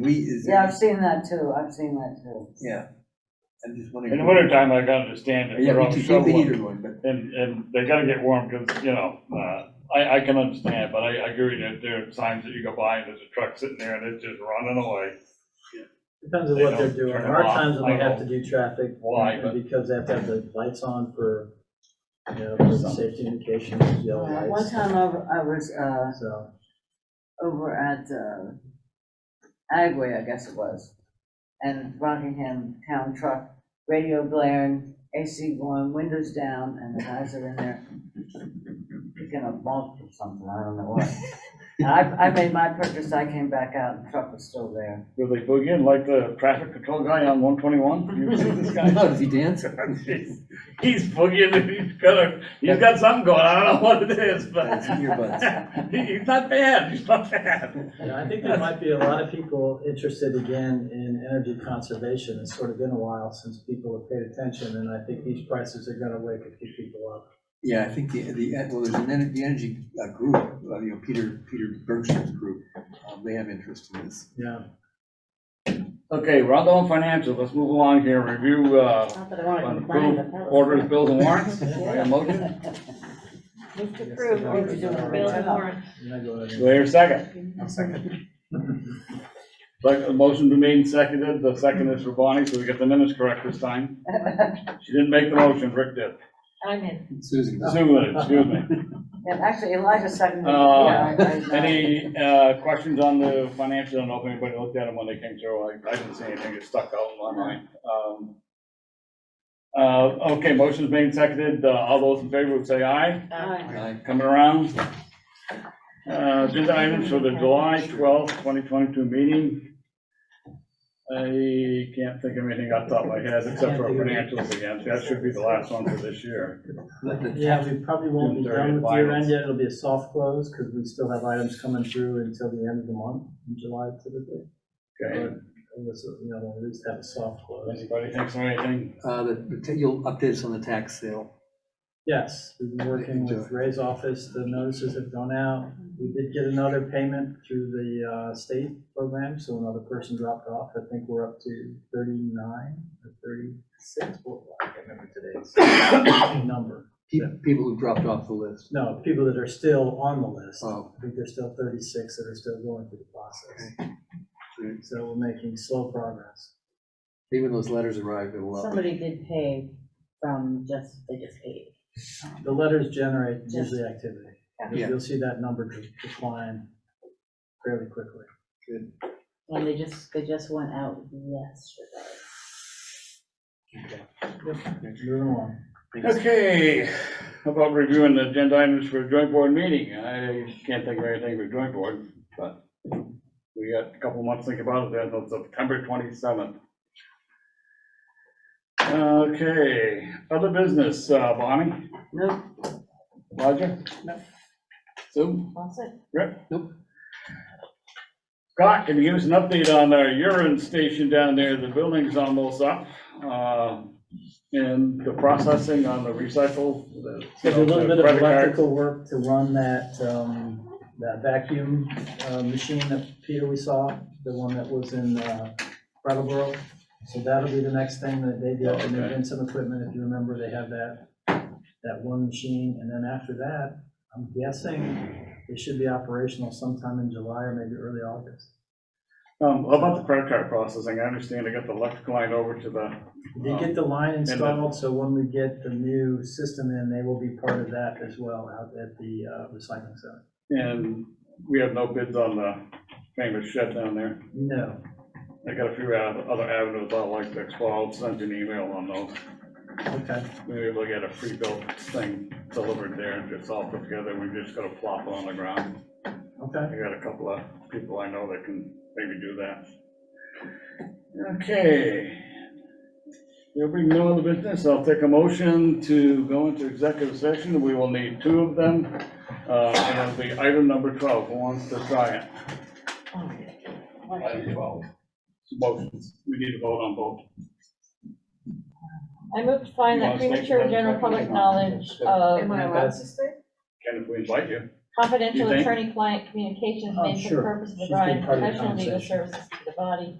wheat is. Yeah, I've seen that too, I've seen that too. Yeah. I'm just wondering. In the wintertime, I can understand it, Yeah, they're we all can keep the shoveling, heater going, but and, and they gotta get warm, because, you know, uh, I, I can understand, but I, I agree that there are times that you go by and there's a truck sitting there and it's just running away. Depends on They what they're don't doing. turn There are them off. times when they I have to do traffic. Why, and but- Because they have to have the lights on for, you know, for the safety indications, yellow Uh, One lights. time I w- I was, uh, So, over at, uh, Agway, I guess it was, and Rockingham Town Truck, radio blaring, AC going, windows down, and the guys are in there picking a bulk or something, I don't know what. And I, I made my purchase, I came back out, and the truck was still there. Do they boogie in like the traffic control guy on one twenty-one? You seen this guy? no, does he dance? He's- He's boogieing, and he's got a, he's got something going, I don't know what it is, but That's earbuds. he- he's not bad, he's not bad. you know, I think there might be a lot of people interested again in energy conservation. It's sort of been a while since people have paid attention, and I think these prices are gonna wake a few people up. Yeah, I think the, the, well, there's an, ener- the energy uh, group, uh, you know, Peter, Peter Bergstrom's group, um, they have interest in this. Yeah. Okay, we're all done with financial, let's move along here, review, uh, Not that I want to and approve complain, but that was. orders, bills, and warrants. Do I have a motion? Move to approve orders, bills, and warrants. You're not going Do I hear a second? second. Like, a motion been made and seconded, the second is for Bonnie, so we get the minutes correct this time. She didn't make the motion, Rick did. I'm in. Susan. Sue did, excuse me. And actually Elijah seconded. it. Uh, Yeah, I- I- Any uh, questions on the financials? I don't know if anybody looked at them when they came through. I I didn't see anything that stuck out in my mind. Um, uh, Okay, motion's being seconded. Uh, All those in favor would say aye. Uh, Aye. Coming around. Uh, Agenda items for the July twelfth, twenty twenty-two meeting. I can't think of anything off the top of my head except for financials again. That should be the last one for this year. Yeah, we probably won't be June 30th done with year end finals. yet. It'll be a soft close, because we still have items coming through until the end of the month, in July typically. Okay, And this, you know, at least have a soft close. anybody thinks of anything? Uh, the, the ta- you'll update us on the tax sale. Yes, we've been working with Ray's office, the notices have gone out. We did get another payment through the uh, state program, so another person dropped off. I think we're up to thirty-nine or thirty-six, Well, I can't remember today's number. Pe- People who dropped off the list. No, people that are still on the list. Oh, I think there's still thirty-six that are still going through the process. great. So we're making slow progress. even those letters arrived, it'll update. Somebody did pay from just, they just paid. The letters generate usually activity. You'll- Yeah. You'll see that number de- decline fairly quickly. And they just, they just went out yesterday. Moving along. Okay, how about reviewing the agenda items for a joint board meeting? I can't think of anything for joint board, but we got a couple months to think about it, then until September twenty-seventh. Okay, other business, uh, Bonnie, Nope, Roger? No. Sue? That's it. Scott, can you give us an update on our urine station down there? The building's almost up. uh, And the processing on the recycle. the- There's a little bit of credit cards. electrical work to run that, um, that vacuum, uh, machine that Peter we saw, the one that was in, uh, Brattleboro. So that'll be the next thing that they Oh, do, and they've been some equipment, if you remember, they have that, that one machine, and then after that, I'm guessing it should be operational sometime in July or maybe early August. Um, how about the credit card processing? I understand they got the electric line over to the, They get the line installed, so when we get the new system in, they will be part of that as well, out at the, uh, recycling center. and we have no bids on the famous shed down there. No, I got a few av- other avenues I'd like to explore. I'll send you an email on those. okay. Maybe we'll get a pre-built thing delivered there and it's all put together. We're just gonna plop it on the ground. Okay. I got a couple of people I know that can maybe do that. Okay. There'll be no other business. I'll take a motion to go into executive session. We will need two of them. Uh, and it'll be item number twelve. Who wants to try it? Item twelve. Motions. We need to vote on both. I moved to find that premature general public knowledge of Ken, if we invite you. Confidential You think? attorney-client communications Oh, made for the sure. purpose of She's been providing Oh, part of the professional legal conversation. services to the body